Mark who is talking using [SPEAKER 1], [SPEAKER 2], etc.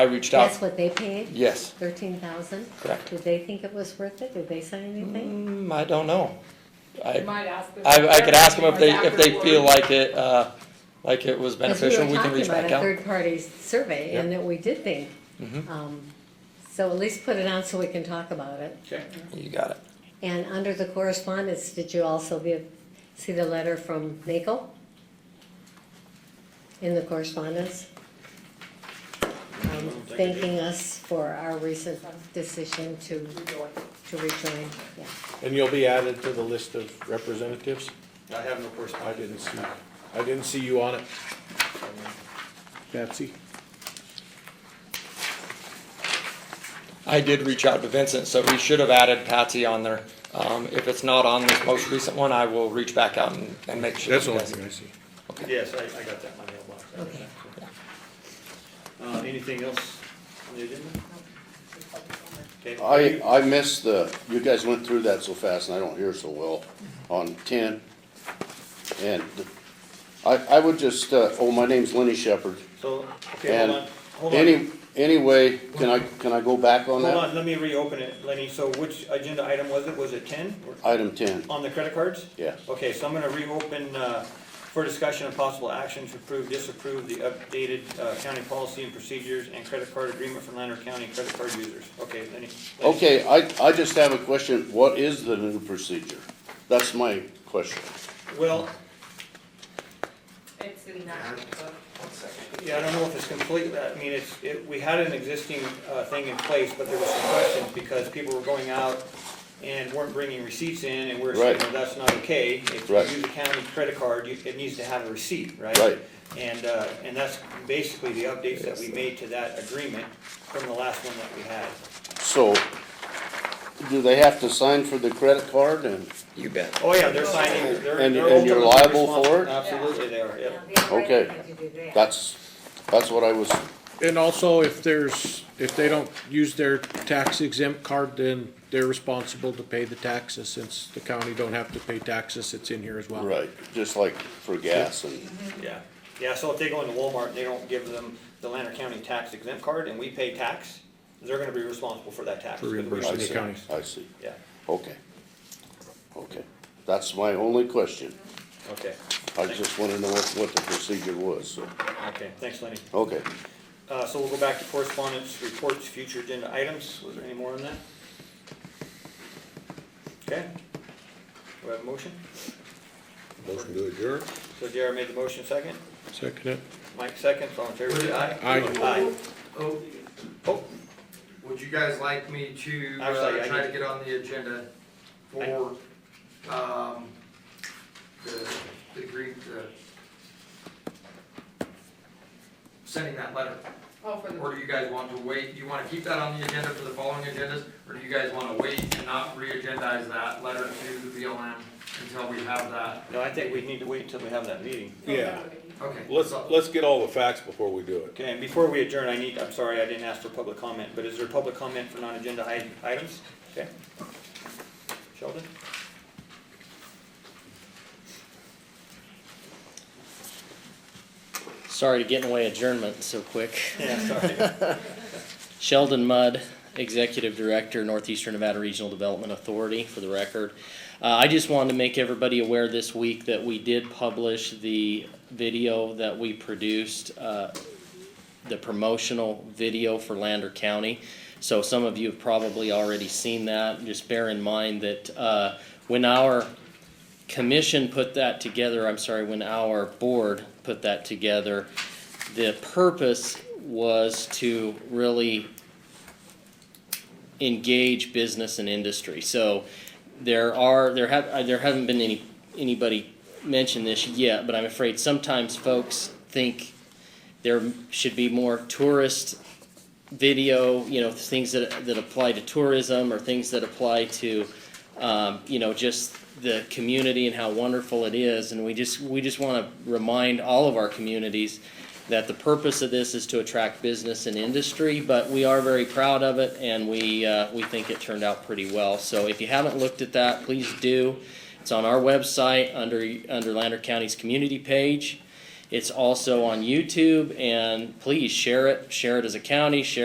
[SPEAKER 1] I reached out.
[SPEAKER 2] That's what they paid?
[SPEAKER 1] Yes.
[SPEAKER 2] Thirteen thousand?
[SPEAKER 1] Correct.
[SPEAKER 2] Did they think it was worth it? Did they say anything?
[SPEAKER 1] Mm, I don't know.
[SPEAKER 3] You
[SPEAKER 1] I,
[SPEAKER 3] might ask them.
[SPEAKER 1] I, I could ask them if they, if they feel
[SPEAKER 3] Afterwards.
[SPEAKER 1] like it, uh, like it was beneficial, we can reach back
[SPEAKER 2] Because we were talking about a
[SPEAKER 1] out.
[SPEAKER 2] third-party survey and
[SPEAKER 1] Yeah. Mm-hmm.
[SPEAKER 2] that we did think, um, so at least put it on so we can talk about it.
[SPEAKER 4] Okay.
[SPEAKER 1] You got it.
[SPEAKER 2] And under the correspondence, did you also give, see the letter from NACO? In the correspondence? Um, thanking us for our recent decision to, to rejoin, yeah.
[SPEAKER 5] And you'll be added to the list of representatives?
[SPEAKER 4] I have no
[SPEAKER 5] I
[SPEAKER 4] correspondence.
[SPEAKER 5] didn't see, I didn't see you on it. Patsy?
[SPEAKER 1] I did reach out to Vincent, so we should have added Patsy on there. Um, if it's not on this most recent one, I will reach back out and, and make sure.
[SPEAKER 5] That's the
[SPEAKER 1] you
[SPEAKER 5] only
[SPEAKER 1] guys-
[SPEAKER 5] thing I see.
[SPEAKER 4] Yes, I, I got that in my mailbox. I read that. Uh, anything else on the agenda? Okay.
[SPEAKER 6] I, I missed the, you guys went through that so fast and I don't hear so well on ten. And I, I would just, uh, oh, my name's Lenny Shepherd.
[SPEAKER 4] So, okay,
[SPEAKER 6] And
[SPEAKER 4] hold on, hold on.
[SPEAKER 6] any, anyway, can I, can I go back on
[SPEAKER 4] Hold
[SPEAKER 6] that?
[SPEAKER 4] on, let me reopen it, Lenny. So which agenda item was it? Was it ten
[SPEAKER 6] Item ten,
[SPEAKER 4] on the credit cards?
[SPEAKER 6] yes.
[SPEAKER 4] Okay, so I'm gonna reopen, uh, for discussion of possible action to approve, disapprove the updated, uh, county policy and procedures and credit card agreement for Lander County credit card users. Okay, Lenny. Lenny.
[SPEAKER 6] Okay, I, I just have a question. What is the new procedure? That's my question.
[SPEAKER 4] Well,
[SPEAKER 3] It's in that book.
[SPEAKER 4] Yeah, I don't know if it's complete, I mean, it's, it, we had an existing, uh, thing in place, but there was some questions because people were going out and weren't bringing receipts in and we're saying, well,
[SPEAKER 6] Right.
[SPEAKER 4] that's not okay. If you
[SPEAKER 6] Right.
[SPEAKER 4] use a county credit card, you, it needs to have a receipt, right?
[SPEAKER 6] Right.
[SPEAKER 4] And, uh, and that's basically the updates that we made to that agreement from the last one that we had.
[SPEAKER 6] So, do they have to sign for the credit card and,
[SPEAKER 1] You bet.
[SPEAKER 4] Oh, yeah, they're signing, they're,
[SPEAKER 6] And-
[SPEAKER 4] they're
[SPEAKER 6] and you're
[SPEAKER 4] ultimately
[SPEAKER 6] liable
[SPEAKER 4] responsible.
[SPEAKER 6] for it?
[SPEAKER 4] Absolutely, they are, yep.
[SPEAKER 6] okay, that's, that's what I was,
[SPEAKER 5] And also, if there's, if they don't use their tax exempt card, then they're responsible to pay the taxes, since the county don't have to pay taxes, it's in here as well.
[SPEAKER 6] right, just like for gas and.
[SPEAKER 4] Yeah, yeah, so if they go into Walmart and they don't give them the Lander County tax exempt card and we pay tax, they're gonna be responsible for that tax.
[SPEAKER 5] For
[SPEAKER 4] because we
[SPEAKER 5] reimbursing
[SPEAKER 4] don't
[SPEAKER 5] the
[SPEAKER 4] pay
[SPEAKER 5] county.
[SPEAKER 4] tax.
[SPEAKER 6] I see,
[SPEAKER 4] Yeah,
[SPEAKER 6] okay. Okay, that's my only question.
[SPEAKER 4] okay,
[SPEAKER 6] I just wanna know what, what the procedure was, so,
[SPEAKER 4] okay, thanks Lenny.
[SPEAKER 6] okay.
[SPEAKER 4] Uh, so we'll go back to correspondence, reports, future agenda items, was there any more on that? Okay, we have a motion,
[SPEAKER 5] Motion to adjourn.
[SPEAKER 4] so Jared made the motion second,
[SPEAKER 5] Second it.
[SPEAKER 4] Mike seconds, all in favor, say aye.
[SPEAKER 5] Aye.
[SPEAKER 4] Aye,
[SPEAKER 7] Oh,
[SPEAKER 4] oh,
[SPEAKER 7] would you guys like me to,
[SPEAKER 4] Actually,
[SPEAKER 7] uh,
[SPEAKER 4] I
[SPEAKER 7] try
[SPEAKER 4] need-
[SPEAKER 7] to get on the agenda for, um, the, the Greek, uh, sending that letter?
[SPEAKER 3] Oh, for the.
[SPEAKER 7] Or do you guys want to wait, you wanna keep that on the agenda for the following agendas? Or do you guys wanna wait and not re-agendize that letter to the BLM until we have that?
[SPEAKER 4] no, I think we need to wait until we have that meeting.
[SPEAKER 5] Yeah.
[SPEAKER 7] Okay.
[SPEAKER 8] Let's,
[SPEAKER 7] so-
[SPEAKER 8] let's get all the facts before we do it.
[SPEAKER 4] Okay, and before we adjourn, I need, I'm sorry, I didn't ask for public comment, but is there public comment for non-agenda i- items? Okay. Sheldon?
[SPEAKER 9] Sorry to get away adjournment so quick.
[SPEAKER 4] Yeah, sorry.
[SPEAKER 9] Sheldon Mudd, Executive Director, Northeastern Nevada Regional Development Authority, for the record. Uh, I just wanted to make everybody aware this week that we did publish the video that we produced, uh, the promotional video for Lander County. So some of you have probably already seen that. Just bear in mind that uh, when our commission put that together, I'm sorry, when our board put that together, the purpose was to really engage business and industry. So there are, there have, uh, there haven't been any, anybody mention this yet, but I'm afraid sometimes folks think there should be more tourist video, you know, things that, that apply to tourism or things that apply to, um, you know, just the community and how wonderful it is. And we just, we just want to remind all of our communities that the purpose of this is to attract business and industry, but we are very proud of it and we, uh, we think it turned out pretty well. So if you haven't looked at that, please do. It's on our website under, under Lander County's community page. It's also on YouTube, and please share it. Share it as a county, share